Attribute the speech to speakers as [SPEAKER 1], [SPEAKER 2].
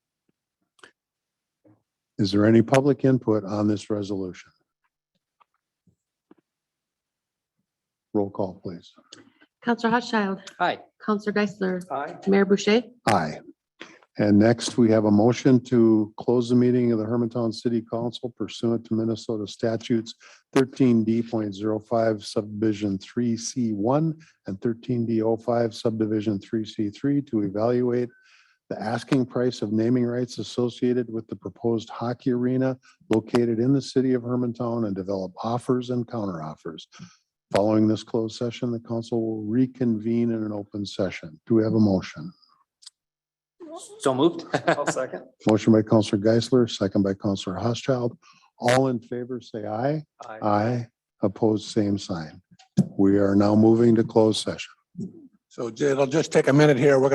[SPEAKER 1] Is there any public input on this resolution? Roll call, please.
[SPEAKER 2] Counselor Hochschild,
[SPEAKER 3] Aye.
[SPEAKER 2] Counselor Geisler,
[SPEAKER 3] Aye.
[SPEAKER 2] Mayor Boucher,
[SPEAKER 1] Aye. And next, we have a motion to close the meeting of the Hermantown City Council pursuant to Minnesota statutes thirteen d05 subdivision three C one and thirteen d 5 subdivision three C three to evaluate the asking price of naming rights associated with the proposed hockey arena located in the city of Hermantown and develop offers and counteroffers. Following this closed session, the council will reconvene in an open session. Do we have a motion?
[SPEAKER 3] So moved. I'll second.
[SPEAKER 1] Motion by Counselor Geisler, second by Counselor Housechild. All in favor, say aye.
[SPEAKER 3] Aye.
[SPEAKER 1] Aye. Opposed, same sign. We are now moving to closed session.
[SPEAKER 4] So it'll just take a minute here. We're